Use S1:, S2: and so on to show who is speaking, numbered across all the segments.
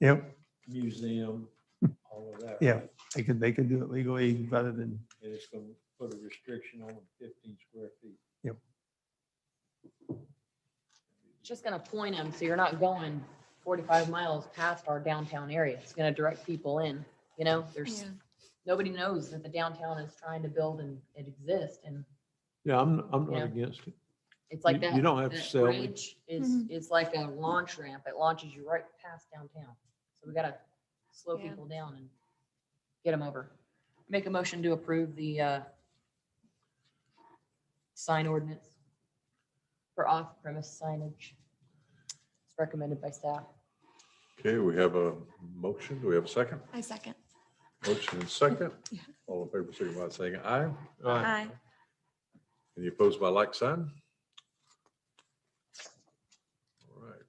S1: Yep,
S2: museum, all of that.
S1: Yeah.
S2: right?
S1: they could, they could do it legally rather than,
S2: And it's going to put a restriction on fifteen square feet.
S1: Yep.
S3: Just gonna point them, so you're not going forty-five miles past our downtown area. It's gonna direct people in, you know, there's, nobody knows that the downtown is trying to build and it exists and
S2: Yeah, I'm, I'm
S3: Yeah.
S2: not against it.
S3: it's like
S2: You-
S3: that.
S2: you don't have to
S3: that
S2: sell me.
S3: bridge Is,
S4: Mhm.
S3: it's like a launch ramp. It launches you right past downtown. So we gotta slow
S4: Yeah.
S3: people down and get them over. Make a motion to approve the, uh, sign ordinance for off-premise signage. It's recommended by staff.
S5: Okay, we have a motion. Do we have a second?
S4: I second.
S5: Motion and second.
S4: Yeah.
S5: All in favor, signify by saying aye.
S4: Aye.
S5: Any opposed by like sign? All right.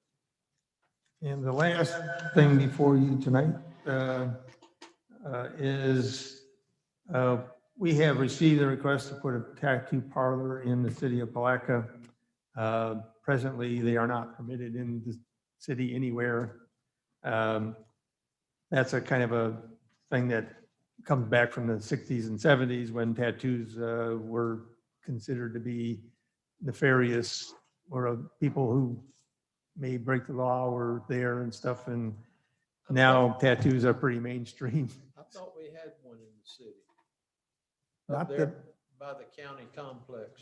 S1: and the last thing before you tonight uh, uh, is uh, we have received a request to put a tattoo parlor in the city of Palaca. Uh, Presently, they are not permitted in the city anywhere. Um, That's a kind of a thing that comes back from the 60s and 70s when tattoos uh, were considered to be nefarious or uh, people who may break the law were there and stuff. And now tattoos are pretty mainstream.
S2: I thought we had one in the city,
S1: Not
S2: up
S1: the,
S2: there by the county complex.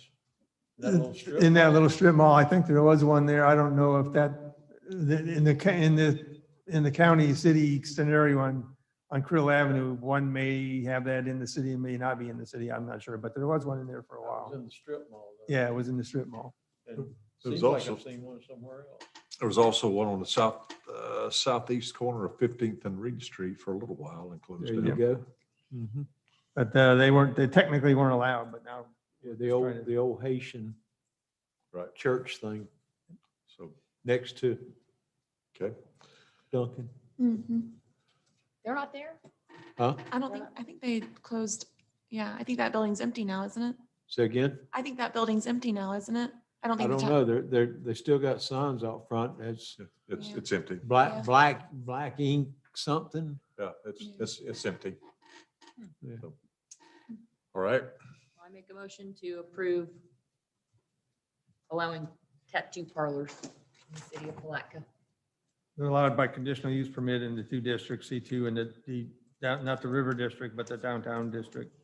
S2: That little strip
S1: Mm, in that
S2: mall.
S1: little strip mall, I think there was one there. I don't know if that, the- in the, ca- in the, in the county city scenario on, on Krill Avenue, one may have that in the city and may not be in the city. I'm not sure, but there was one in there for a
S2: That was
S1: while.
S2: In the strip mall. though.
S1: Yeah, it was in the strip mall.
S2: And
S5: There's
S2: Seems like
S5: also-
S2: I've seen one somewhere else.
S5: There was also one on the south, uh, southeast corner of Fifteenth and Reed Street for a little while and closed
S2: There you
S5: down.
S2: go.
S1: Mm-hmm. But uh, they weren't, they technically weren't allowed, but now
S2: Yeah, the
S1: Just trying
S2: old,
S1: to-
S2: the old Haitian
S5: Right.
S2: church thing
S5: So,
S2: next to
S5: okay.
S2: Duncan.
S4: Mhm.
S3: They're not there?
S2: Huh?
S4: I don't think, I think they closed, yeah, I think that building's empty now, isn't it?
S2: Say again?
S4: I think that building's empty now, isn't it? I don't
S2: I
S4: think. the
S2: don't
S4: ta-
S2: know. They're, they're, they still got signs out front. It's
S5: Yeah, It's,
S4: Yeah.
S5: it's empty.
S4: Yeah.
S2: black, black, black ink something.
S5: Yeah, it's,
S4: Yeah.
S5: it's, it's empty.
S2: Yeah.
S5: So, All right.
S3: I make a motion to approve allowing tattoo parlors in the city of Palatka.
S1: They're allowed by conditional use permit in the two districts, C2 and the- the, down- not the river district, but the downtown district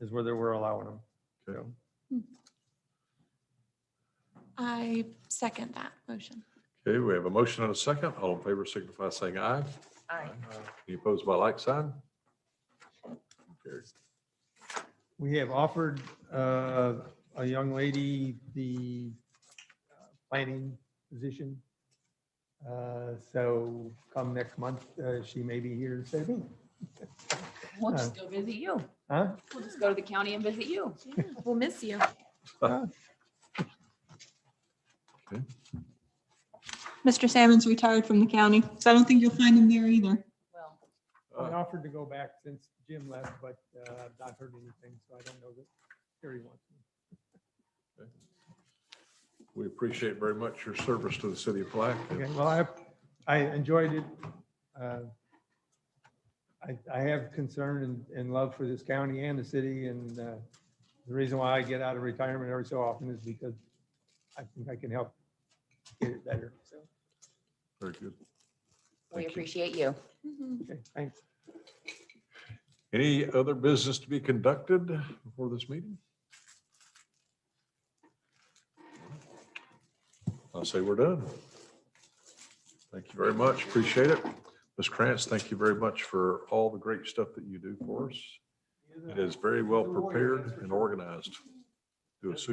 S1: is where they were allowing them.
S5: Okay.
S1: So,
S4: I second that motion.
S5: Okay, we have a motion and a second. All in favor, signify by saying aye.
S3: Aye.
S5: Any opposed by like sign? Carried.
S1: We have offered uh, a young lady the uh, planning position. Uh, So come next month, uh, she may be here to say, "Hmm,
S3: We'll just go visit you.
S1: huh?
S3: We'll just go to the county and visit you.
S4: We'll miss you.
S1: Uh,
S6: Mr. Salmon's retired from the county, so I don't think you'll find him there either.
S3: Well,
S1: I
S5: Uh,
S1: offered to go back since Jim left, but uh, I've not heard anything, so I don't know that Terry wants me.
S5: We appreciate very much your service to the city of Black.
S1: Okay, well, I, I enjoyed it. Uh, I, I have concern and, and love for this county and the city, and uh, the reason why I get out of retirement every so often is because I think I can help get it better, so,
S5: Very good.
S3: we
S5: Thank you.
S3: appreciate you.
S4: Mhm.
S1: okay, thanks.
S5: Any other business to be conducted before this meeting? I'll say we're done. Thank you very much. Appreciate it. Ms. Krantz, thank you very much for all the great stuff that you do for us. It is very well prepared and organized. Do a super